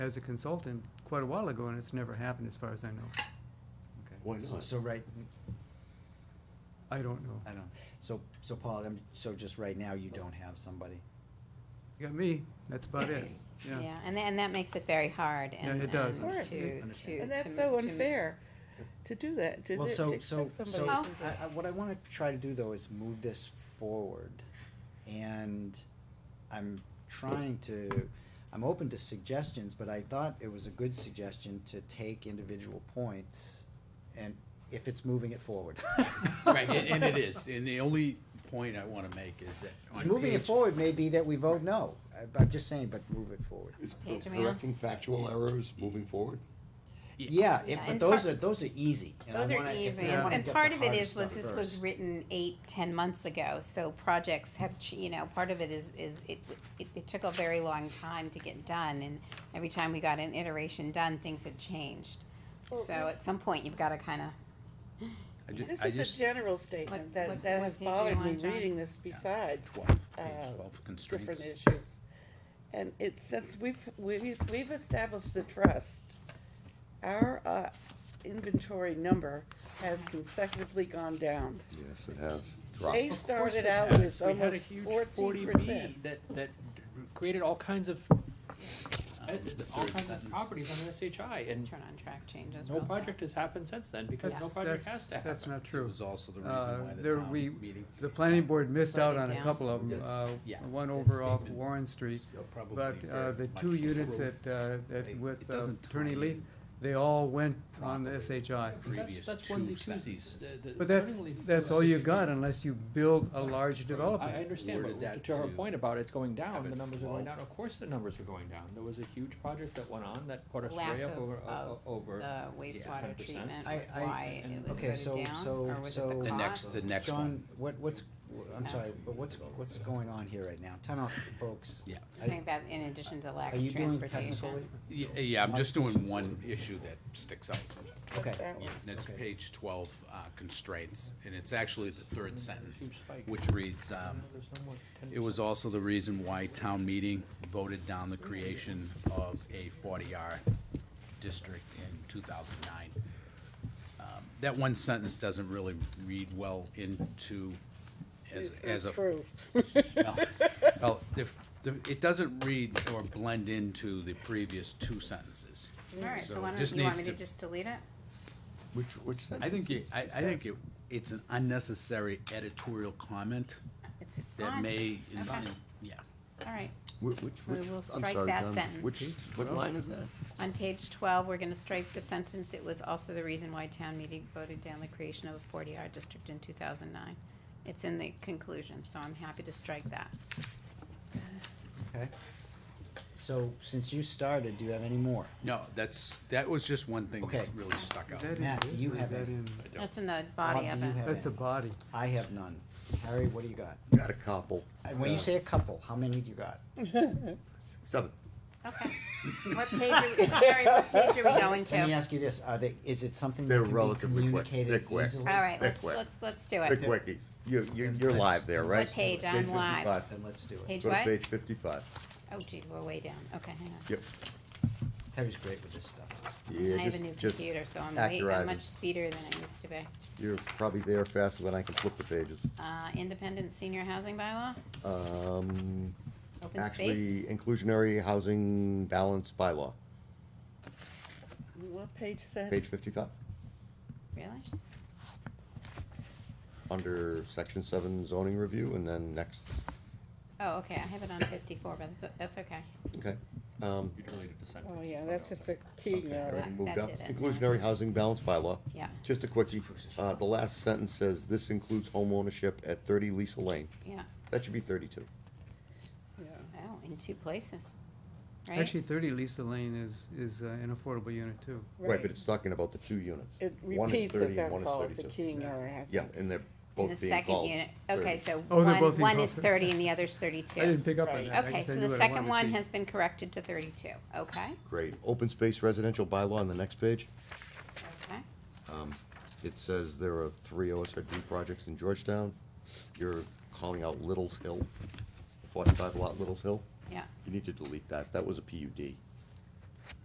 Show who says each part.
Speaker 1: as a consultant quite a while ago, and it's never happened as far as I know.
Speaker 2: Why
Speaker 3: So,
Speaker 2: not?
Speaker 3: so right,
Speaker 1: I don't know.
Speaker 3: I don't, so, so Paul, I'm, so just right now, you don't have somebody?
Speaker 1: You got me, that's about it, yeah.
Speaker 4: Yeah, and tha- and that makes it very hard
Speaker 1: Yeah,
Speaker 4: and.
Speaker 1: it does.
Speaker 4: and
Speaker 5: Of course.
Speaker 4: to-
Speaker 3: Understand.
Speaker 4: to-
Speaker 5: And
Speaker 4: to
Speaker 5: that's
Speaker 4: ma-
Speaker 5: so
Speaker 4: to ma-
Speaker 5: unfair to do that, to,
Speaker 3: Well,
Speaker 5: to
Speaker 3: so,
Speaker 5: expect
Speaker 3: so, so,
Speaker 5: somebody
Speaker 3: I,
Speaker 5: to do
Speaker 3: I, what I wanna try to do though is move this forward. And I'm trying to, I'm open to suggestions, but I thought it was a good suggestion to take individual points and if it's moving it forward.
Speaker 6: Right, and, and it is, and the only point I wanna make is that on
Speaker 3: Moving it
Speaker 6: page-
Speaker 3: forward may be that we vote no. I- I'm just saying, but move it forward.
Speaker 2: Is
Speaker 4: Hey,
Speaker 2: cor-
Speaker 4: Jamil?
Speaker 2: correcting factual errors moving forward?
Speaker 3: Yeah, it-
Speaker 4: Yeah,
Speaker 3: but
Speaker 4: and
Speaker 3: those
Speaker 4: part-
Speaker 3: are, those are easy. and I
Speaker 4: Those are
Speaker 3: wanna- if
Speaker 4: easy,
Speaker 3: we wanna
Speaker 4: and
Speaker 3: get
Speaker 4: part
Speaker 3: the
Speaker 4: of it
Speaker 3: hard
Speaker 4: is, was
Speaker 3: stuff
Speaker 4: this was
Speaker 3: first.
Speaker 4: written eight, ten months ago, so projects have, ch- you know, part of it is, is it, it, it took a very long time to get done, and every time we got an iteration done, things had changed.
Speaker 5: Well,
Speaker 4: So
Speaker 5: if-
Speaker 4: at some point, you've gotta kinda,
Speaker 6: I ju-
Speaker 5: that. This
Speaker 6: I
Speaker 5: is a
Speaker 6: just-
Speaker 5: general
Speaker 4: What-
Speaker 5: statement
Speaker 4: what-
Speaker 5: that, that
Speaker 4: what
Speaker 5: has
Speaker 4: page you
Speaker 5: bothered me
Speaker 4: want, John?
Speaker 5: reading this besides
Speaker 6: Twelve,
Speaker 5: uh,
Speaker 6: page twelve
Speaker 5: different
Speaker 6: constraints.
Speaker 5: issues. And it, since we've, we've, we've established the trust, our, uh, inventory number has consecutively gone down.
Speaker 2: Yes, it has.
Speaker 5: They
Speaker 2: Dropped.
Speaker 5: started out with
Speaker 7: We had a
Speaker 5: almost
Speaker 7: huge
Speaker 5: fourteen
Speaker 7: 40B
Speaker 5: percent.
Speaker 7: that, that created all kinds of,
Speaker 6: Um, the
Speaker 7: all
Speaker 6: third
Speaker 7: kinds of
Speaker 6: sentence.
Speaker 7: properties on SHI, and
Speaker 4: turn on track changes.
Speaker 7: no
Speaker 4: real fast.
Speaker 7: project has happened since then, because
Speaker 1: That's
Speaker 7: no project has
Speaker 1: that's-
Speaker 7: to happen.
Speaker 1: That's not
Speaker 6: It
Speaker 1: true.
Speaker 6: was also the reason
Speaker 1: Uh,
Speaker 6: why the
Speaker 1: There,
Speaker 6: town
Speaker 1: we,
Speaker 6: meeting.
Speaker 1: the planning board missed out on
Speaker 4: Write it
Speaker 1: a
Speaker 4: down.
Speaker 1: couple of them,
Speaker 6: That's- yeah,
Speaker 1: uh, one
Speaker 6: that
Speaker 1: over off
Speaker 6: statement
Speaker 1: Warren Street.
Speaker 6: is probably
Speaker 1: But uh,
Speaker 6: very
Speaker 1: the
Speaker 6: much
Speaker 1: two units
Speaker 6: true.
Speaker 1: that, uh, that
Speaker 6: It-
Speaker 1: with
Speaker 6: it
Speaker 1: uh,
Speaker 6: doesn't
Speaker 1: Attorney
Speaker 6: tie
Speaker 1: Lee,
Speaker 6: in
Speaker 1: they all went on the
Speaker 6: properly.
Speaker 1: SHI.
Speaker 7: But that's-
Speaker 6: previous
Speaker 7: That's
Speaker 6: two
Speaker 7: onesie
Speaker 6: sentences.
Speaker 7: twosies. The- the-
Speaker 1: But that's,
Speaker 7: suddenly-
Speaker 1: that's all you got unless you build a large
Speaker 7: I
Speaker 1: development.
Speaker 7: understand,
Speaker 6: Worded
Speaker 7: but
Speaker 6: that
Speaker 7: to her
Speaker 6: to
Speaker 7: point about it's going down,
Speaker 6: have
Speaker 7: the
Speaker 6: it
Speaker 7: numbers are going
Speaker 6: fall.
Speaker 7: down, of course the numbers are going down, there was a huge project that went on that put us
Speaker 4: Lack
Speaker 7: way up
Speaker 4: of-
Speaker 7: over,
Speaker 4: of
Speaker 7: o- o- over.
Speaker 4: The wastewater
Speaker 7: 10%.
Speaker 4: treatment
Speaker 3: I-
Speaker 4: was
Speaker 3: I-
Speaker 4: why
Speaker 7: and-
Speaker 4: it was
Speaker 3: Okay, so,
Speaker 4: voted down,
Speaker 3: so,
Speaker 4: or was it
Speaker 3: so.
Speaker 4: the cost?
Speaker 6: The next, the next
Speaker 3: John,
Speaker 6: one.
Speaker 3: what, what's, wh- I'm
Speaker 4: Yeah.
Speaker 3: sorry, but what's, what's going on here right now? Time out, folks.
Speaker 6: Yeah.
Speaker 4: I think that in addition to lack
Speaker 3: Are you
Speaker 4: of
Speaker 3: doing
Speaker 4: transportation.
Speaker 3: technically?
Speaker 6: Yeah, yeah, I'm just doing one issue that sticks out.
Speaker 3: Okay,
Speaker 5: That
Speaker 6: Yeah,
Speaker 5: one.
Speaker 6: and it's
Speaker 3: Okay.
Speaker 6: page twelve, uh, constraints, and it's actually the third sentence,
Speaker 7: Huge spike.
Speaker 6: which reads, um,
Speaker 7: There's no more 10%.
Speaker 6: It was also the reason why town meeting voted down the creation of a forty R district in two thousand nine. Um, That one sentence doesn't really read well into as,
Speaker 5: It's
Speaker 6: as a.
Speaker 5: not true.
Speaker 6: No. Well, the, the, it doesn't read or blend into the previous two sentences.
Speaker 4: Alright, so
Speaker 6: So
Speaker 4: why
Speaker 6: it
Speaker 4: don't,
Speaker 6: just
Speaker 4: you want me
Speaker 6: needs
Speaker 4: to
Speaker 6: to-
Speaker 4: just delete it?
Speaker 2: Which, which sentence?
Speaker 6: I think, it-
Speaker 2: is-
Speaker 6: I, I
Speaker 2: is
Speaker 6: think
Speaker 2: that?
Speaker 6: it, it's an unnecessary editorial comment
Speaker 4: It's
Speaker 6: that
Speaker 4: fine.
Speaker 6: may,
Speaker 4: Okay.
Speaker 6: yeah.
Speaker 4: Alright,
Speaker 2: Whi- Which, which,
Speaker 4: We will
Speaker 2: I'm
Speaker 4: strike
Speaker 2: sorry,
Speaker 4: that
Speaker 2: John,
Speaker 4: sentence.
Speaker 2: Which, what line is that?
Speaker 4: on page twelve, we're gonna strike the sentence, it was also the reason why town meeting voted down the creation of a forty R district in two thousand nine. It's in the conclusion, so I'm happy to strike that.
Speaker 3: okay. So, since you started, do you have any more?
Speaker 6: No, that's, that was just one thing
Speaker 3: Okay.
Speaker 6: that really stuck out.
Speaker 1: Is that in
Speaker 3: Matt, do
Speaker 1: this
Speaker 3: you
Speaker 1: or is
Speaker 3: have
Speaker 1: that
Speaker 3: any?
Speaker 1: in-
Speaker 4: That's in the body
Speaker 3: Bob,
Speaker 4: of
Speaker 3: do you
Speaker 4: it.
Speaker 3: have
Speaker 1: That's the
Speaker 3: any?
Speaker 1: body.
Speaker 3: I have none. Harry, what do you got?
Speaker 2: Got a couple.
Speaker 3: And When you
Speaker 2: Uh,
Speaker 3: say a couple, how many do you got?
Speaker 2: Seven.
Speaker 4: Okay. What page are we, Harry, what page are we going
Speaker 3: Let me
Speaker 4: to?
Speaker 3: ask you this, are they, is it something
Speaker 2: They're
Speaker 3: that can be
Speaker 2: relatively quick. They're
Speaker 3: communicated
Speaker 2: quick.
Speaker 3: easily?
Speaker 4: Alright, let's,
Speaker 2: Quick.
Speaker 4: let's, let's do
Speaker 2: The
Speaker 4: it.
Speaker 2: quickies. You, you, you're live there, right?
Speaker 4: What page? I'm live.
Speaker 2: 55.
Speaker 3: Then let's do it.
Speaker 4: Page
Speaker 2: Go to
Speaker 4: what?
Speaker 2: page fifty-five.
Speaker 4: Oh geez, we're way down, okay, hang on.
Speaker 2: Yep.
Speaker 3: Harry's great with this stuff.
Speaker 2: Yeah,
Speaker 4: I have a
Speaker 2: just-
Speaker 4: new
Speaker 2: just
Speaker 4: computer, so I'm way, I'm
Speaker 2: accurizing.
Speaker 4: much speedier than I used to be.
Speaker 2: You're probably there faster than I can flip the pages.
Speaker 4: Uh, independent senior housing bylaw,
Speaker 2: Um,
Speaker 4: open space,
Speaker 2: actually, inclusionary housing balance bylaw,
Speaker 5: What page is that?
Speaker 2: page fifty-five,
Speaker 4: really?
Speaker 2: under section seven zoning review, and then next,
Speaker 4: Oh, okay, I have it on fifty-four, but that's- that's okay.
Speaker 2: okay. Um,
Speaker 7: You deleted the sentence.
Speaker 5: Oh, yeah, that's just a key
Speaker 2: okay, I
Speaker 5: now.
Speaker 2: already
Speaker 4: That-
Speaker 2: moved
Speaker 4: that
Speaker 2: up.
Speaker 4: did it, yeah.
Speaker 2: Inclusionary housing balance bylaw.
Speaker 4: Yeah,
Speaker 2: Just a quickie, uh, the last sentence says, this includes home ownership at thirty Lisa Lane.
Speaker 4: yeah,
Speaker 2: That should be thirty-two.
Speaker 4: oh, in two places, right?
Speaker 1: Actually, thirty Lisa Lane is, is uh, an affordable unit too.
Speaker 2: Right, but it's talking about the two units.
Speaker 5: It
Speaker 2: One is
Speaker 5: repeats
Speaker 2: 30
Speaker 5: it,
Speaker 2: and one
Speaker 5: that's
Speaker 2: is
Speaker 5: all, it's a
Speaker 2: 32.
Speaker 5: keying error, I
Speaker 2: Yeah,
Speaker 5: think.
Speaker 2: and they're
Speaker 4: In the
Speaker 2: both being
Speaker 4: second
Speaker 2: called.
Speaker 4: unit,
Speaker 2: 30.
Speaker 4: okay, so
Speaker 1: Oh, they're both
Speaker 4: one,
Speaker 1: being
Speaker 4: one
Speaker 1: called
Speaker 4: is
Speaker 1: 30.
Speaker 4: thirty and the other's
Speaker 1: I didn't
Speaker 4: thirty-two.
Speaker 1: pick up on
Speaker 5: Right.
Speaker 1: that. I
Speaker 4: Okay,
Speaker 1: just
Speaker 4: so
Speaker 1: knew
Speaker 4: the
Speaker 1: what I
Speaker 4: second
Speaker 1: wanted to
Speaker 4: one
Speaker 1: see.
Speaker 4: has been corrected to thirty-two, okay,
Speaker 2: Great. Open space residential bylaw on the next page.
Speaker 4: okay,
Speaker 2: Um, It says there are three OSRD projects in Georgetown. You're calling out Little's Hill, forty-five lot Little's Hill.
Speaker 4: yeah.
Speaker 2: You need to delete that. That was a PUD.